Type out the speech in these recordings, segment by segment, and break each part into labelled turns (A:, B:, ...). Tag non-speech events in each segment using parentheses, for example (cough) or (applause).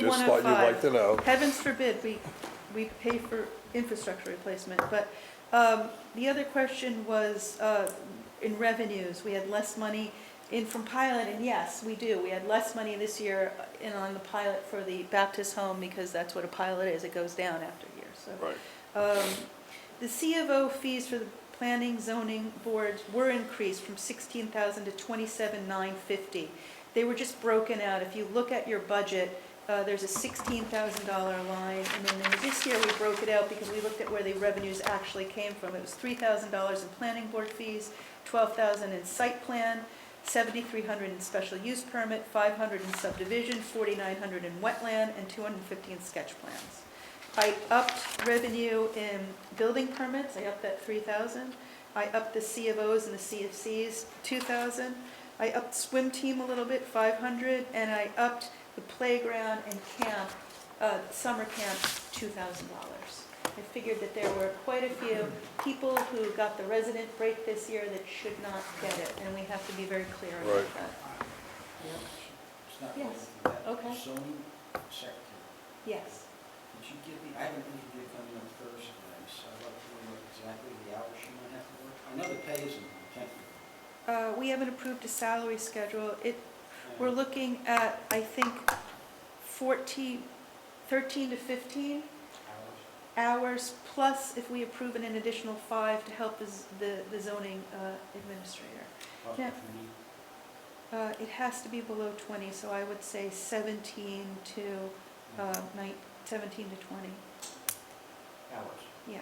A: just
B: one oh
A: thought you'd like
B: five.
A: to know.
B: Heavens forbid, we, we pay for infrastructure replacement, but, um, the other question was, uh, in revenues, we had less money in from pilot, and yes, we do, we had less money this year in on the pilot for the Baptist home, because that's what a pilot is, it goes down after a year, so.
A: Right.
B: Um, The C of O fees for the planning zoning boards were increased from 16,000 to 27,950. They were just broken out. If you look at your budget, uh, there's a $16,000 line, and then there- this year we broke it out because we looked at where the revenues actually came from. It was $3,000 in planning board fees, 12,000 in site plan, 7,300 in special use permit, 500 in subdivision, 4,900 in wetland, and 250 in sketch plans. I upped revenue in building permits, I upped that 3,000. I upped the C of Os and the C of Cs, 2,000. I upped swim team a little bit, 500, and I upped the playground and camp, uh, summer camp, $2,000. I figured that there were quite a few people who got the resident break this year that should not get it, and we have to be very clear about
A: Right.
B: that.
C: It's not
B: Yes.
C: going for that.
B: Okay.
C: Zoning secretary,
B: Yes,
C: did you give me, I have an interview coming on Thursday, so I'd like to know exactly the hours she might have to work. I know the pay isn't technical.
B: Uh, we haven't approved a salary schedule. It We're looking at, I think, 14, 13 to 15
C: Hours.
B: hours, plus if we approve an additional five to help the z- the the zoning uh, administrator.
C: Plus
B: Yeah.
C: if we need-
B: Uh, It has to be below 20, so I would say 17 to, uh, nine- 17 to 20,
C: Hours.
B: yeah.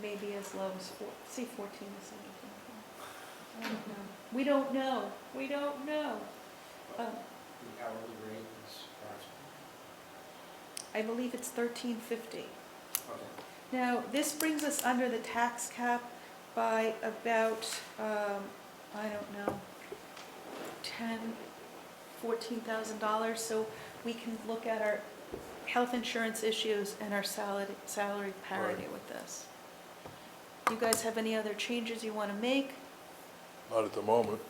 B: Maybe as low as, four- say 14 to 17. I don't know. We don't know, we don't know. Um,
C: The hourly rate is approximately.
B: I believe it's 1350.
C: Okay.
B: Now, this brings us under the tax cap by about, um, I don't know, ten, fourteen thousand dollars, so we can look at our health insurance issues and our salary, salary parity with this. You guys have any other changes you wanna make?
A: Not at the moment.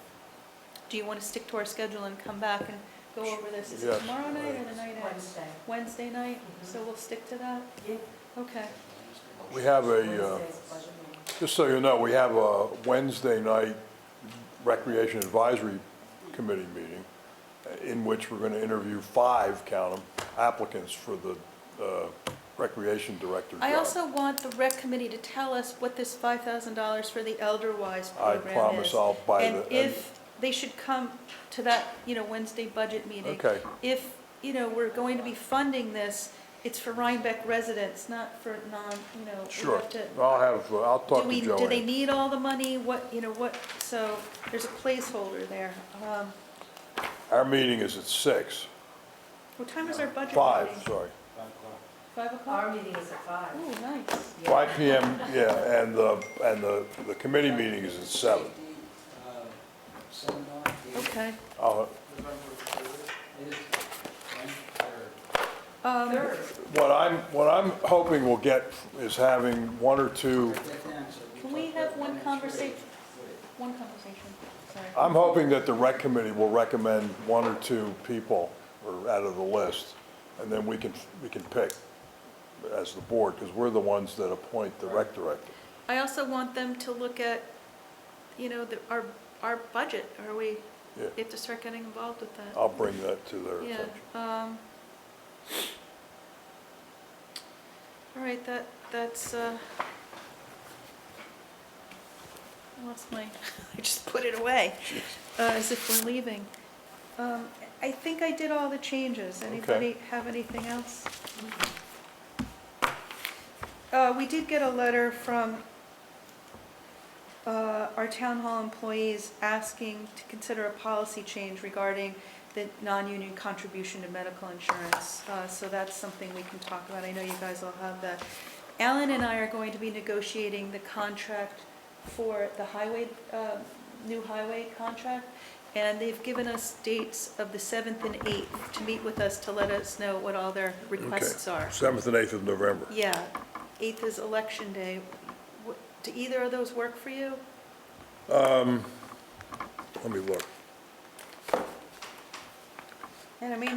B: Do you wanna stick to our schedule and come back and go over this? Is it
A: Yes,
B: tomorrow night or
A: right.
B: the night after?
D: Wednesday.
B: Wednesday night, so we'll stick to that?
D: Yeah.
B: Okay,
A: We have a, uh,
D: Wednesday's budget meeting.
A: just so you know, we have a Wednesday night Recreation Advisory Committee meeting uh, in which we're going to interview five, count 'em, applicants for the uh, Recreation Director job.
B: I also want the rec committee to tell us what this five thousand dollars for the Elderwise
A: I
B: program is.
A: promise I'll buy the.
B: And if they should come to that, you know, Wednesday budget meeting.
A: Okay,
B: If, you know, we're going to be funding this, it's for Rhinebeck residents, not for non, you know, we
A: sure.
B: have to.
A: I'll have, uh, I'll talk
B: Do
A: to
B: we,
A: Joanne.
B: do they need all the money? What, you know, what, so there's a placeholder there. Um,
A: Our meeting is at six,
B: what time is our budget meeting?
A: five, sorry,
C: Five o'clock.
B: Five o'clock?
D: Our meeting is at five.
B: Ooh, nice.
D: Yeah.
A: five PM, yeah, and the, and the, the committee meeting is at seven.
C: Uh, Seminar. the
B: Okay.
A: Uh,
C: November third. It is November third.
B: Um,
D: Third,
A: What I'm, what I'm hoping we'll get is having one or two,
C: Write that down so
B: Can we
C: talk
B: have
C: about
B: one
C: next
B: conversation?
C: week. Wait.
B: one conversation, sorry.
A: I'm hoping that the rec committee will recommend one or two people or out of the list, and then we can, we can pick as the board, because we're the ones that appoint the rec director.
B: I also want them to look at, you know, the, our, our budget, are we,
A: Yeah.
B: they have to start getting involved with that.
A: I'll bring that to their
B: Yeah,
A: attention.
B: um. All right, that, that's, uh, I lost my, (laughs) I just put it away, uh, as if we're leaving. Um, I think I did all the changes. Anybody have anything else? Uh, we did get a letter from, uh, our town hall employees asking to consider a policy change regarding the non-union contribution to medical insurance. Uh, so that's something we can talk about. I know you guys all have that. Alan and I are going to be negotiating the contract for the highway, uh, new highway contract. And they've given us dates of the seventh and eighth to meet with us to let us know what all their requests are.
A: Seventh and eighth of November.
B: Yeah, 8th is election day. Wh- Do either of those work for you?
A: Um, Let me look.
B: And I mean,